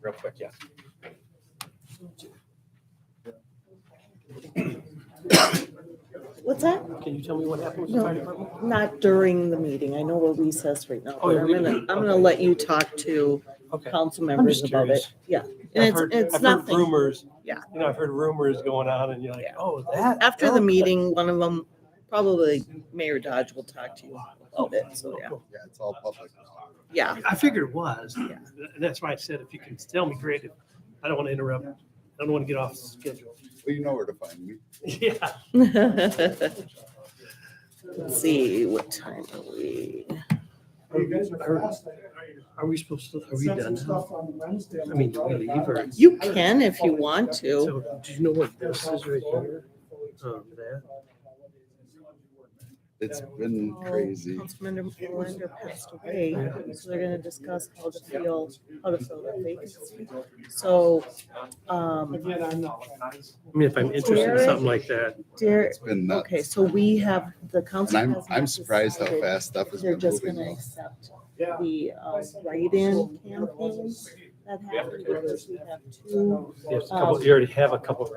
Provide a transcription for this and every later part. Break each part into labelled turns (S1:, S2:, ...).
S1: real quick, yes.
S2: What's that?
S3: Can you tell me what happened with the
S2: No.
S3: fire department?
S2: Not during the meeting. I know we're recessed right now,
S3: Oh,
S2: but
S3: you're
S2: I'm gonna,
S3: leaving.
S2: I'm gonna let you talk to
S3: Okay.
S2: council members
S3: just
S2: about it.
S3: curious.
S2: Yeah.
S3: I've
S2: And it's,
S3: heard-
S2: it's
S3: I've heard
S2: nothing.
S3: Rumors.
S2: Yeah.
S3: You know, I've heard rumors going on and you're like,
S2: Yeah.
S3: oh, that.
S2: After the
S3: oh,
S2: meeting, one of them, probably Mayor Dodge will talk to you about
S3: Oh.
S2: it. So, yeah.
S3: cool.
S4: Yeah, it's all public knowledge.
S2: Yeah.
S3: I figured it was.
S2: Yeah.
S3: That's why I said, if you can tell me, great. I don't want to interrupt. I don't want to get off schedule.
S4: Well, you know where to find me.
S3: Yeah.
S2: Let's see, what time are we?
S5: You guys are fast.
S3: Are we supposed to, are we
S5: Sent some
S3: done? now?
S5: stuff on Wednesday.
S3: I mean, do we leave or-
S2: You can if you want to.
S3: So do you know what this is right here? Um, that.
S4: It's been
S2: Oh,
S4: crazy.
S2: Councilmember Melinda passed away, so they're gonna discuss how to feel, how to fill that vacancy. So, um,
S5: Again, I'm not.
S3: I mean, if I'm interested in something like that,
S2: there,
S4: It's been nuts.
S2: okay, so we have, the
S4: And
S2: council.
S4: I'm,
S2: has
S4: I'm
S2: not
S4: surprised how
S2: decided
S4: fast stuff has
S2: They're
S4: been
S2: just
S4: moving.
S2: gonna
S4: though.
S2: accept
S5: Yeah.
S2: the, um, write-in campaigns that happen, because we have two.
S3: there's a couple, you already have a
S2: um,
S3: couple. of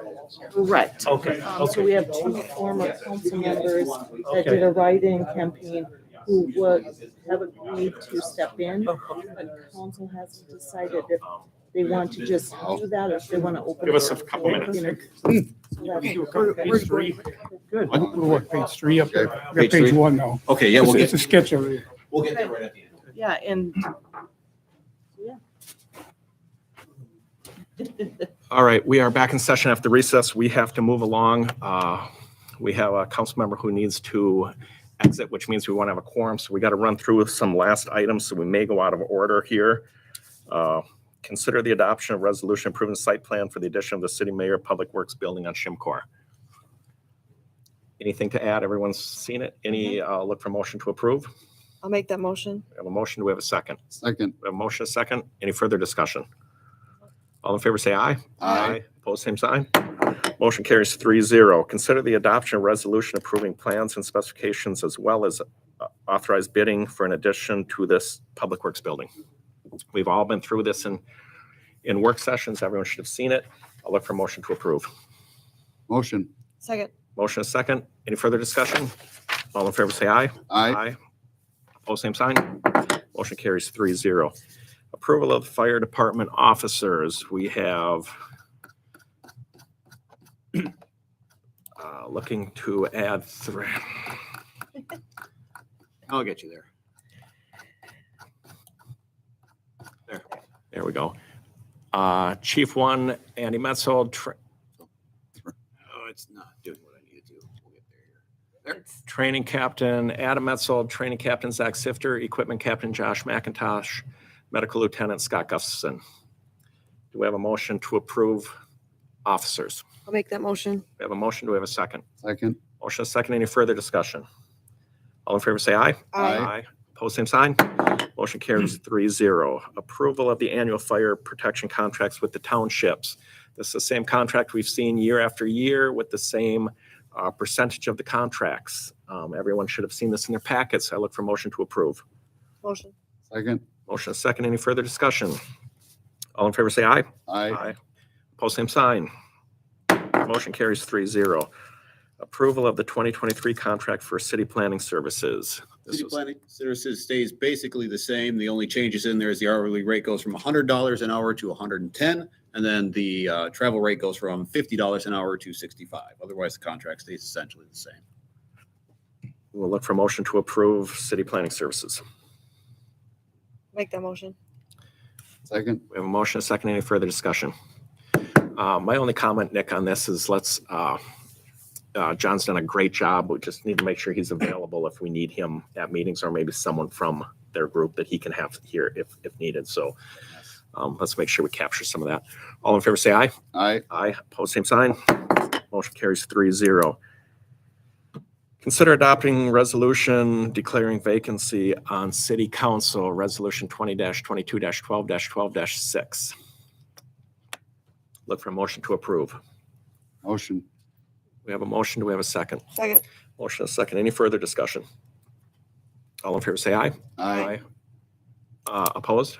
S2: Right.
S3: Okay,
S2: Um, so we
S3: okay.
S2: have two former council members that
S3: Okay.
S2: did a write-in campaign who would have agreed to step in,
S3: Oh,
S6: Uh-huh.
S2: but council hasn't decided if they want to just do that or if they want to open.
S7: Give us
S2: it
S7: a
S2: up
S7: couple
S2: to
S7: minutes.
S2: inter- so that's-
S7: Page three.
S8: Good.
S4: Wow.
S8: We're what, page three up there?
S4: Okay.
S8: We got
S7: Page
S8: page
S7: three?
S8: one now.
S7: Okay, yeah, we'll
S8: It's-
S7: get,
S8: It's a sketch over there.
S7: we'll get there right at the end.
S2: Yeah, and, yeah.
S7: All right, we are back in session after recess. We have to move along. Uh, We have a council member who needs to exit, which means we want to have a quorum. So we got to run through some last items, so we may go out of order here. Uh, Consider the adoption of resolution approving site plan for the addition of the city mayor public works building on Shimcor. Anything to add? Everyone's seen it? Any uh, look for motion to approve?
S6: I'll make that motion.
S7: We have a motion. Do we have a second?
S4: Second,
S7: We have a motion, a second. Any further discussion? All in favor, say aye.
S4: aye.
S7: Opposed, same sign. Motion carries three zero. Consider the adoption of resolution approving plans and specifications as well as uh, authorized bidding for an addition to this Public Works building. We've all been through this in, in work sessions. Everyone should have seen it. I'll look for motion to approve.
S4: Motion,
S6: Second,
S7: Motion is second. Any further discussion? All in favor, say aye.
S4: aye.
S7: Opposed, same sign. Motion carries three zero. Approval of fire department officers. We have uh, looking to add three.
S9: I'll get you there.
S7: There we go. Uh, Chief one, Andy Metzold, tra-
S9: Oh, it's not doing what I need to do. We'll get there here.
S7: training captain Adam Metzold, training captain Zach Sifter, equipment captain Josh McIntosh, medical lieutenant Scott Gustafson. Do we have a motion to approve officers?
S6: I'll make that motion.
S7: We have a motion. Do we have a second?
S4: Second,
S7: Motion is second. Any further discussion? All in favor, say aye.
S4: Aye.
S7: Opposed, same sign. Motion carries three zero. Approval of the annual fire protection contracts with the townships. This is the same contract we've seen year after year with the same uh, percentage of the contracts. Um, Everyone should have seen this in their packets. I look for motion to approve.
S6: Motion.
S4: second,
S7: Motion is second. Any further discussion? All in favor, say aye.
S4: aye.
S7: Post same sign. Motion carries three zero. Approval of the 2023 contract for city planning services. This
S9: City
S7: was
S9: planning services stays basically the same. The only changes in there is the hourly rate goes from hundred dollars an hour to $110, And then the uh, travel rate goes from fifty dollars an hour to sixty-five. Otherwise, the contract stays essentially the same.
S7: We'll look for motion to approve city planning services.
S6: Make that motion.
S4: Second,
S7: We have a motion, a second, any further discussion? Uh, My only comment, Nick, on this is let's, uh, uh, John's done a great job. We just need to make sure he's available if we need him at meetings or maybe someone from their group that he can have here if, if needed. So um, let's make sure we capture some of that. All in favor, say aye.
S4: aye.
S7: Aye, pose same sign. Motion carries three zero. Consider adopting resolution declaring vacancy on city council, resolution twenty twenty-two twelve twelve six. Look for a motion to approve.
S4: Motion,
S7: We have a motion, do we have a second?
S6: Second.
S7: Motion is second, any further discussion? All in favor, say aye.
S4: aye.
S7: Uh, opposed?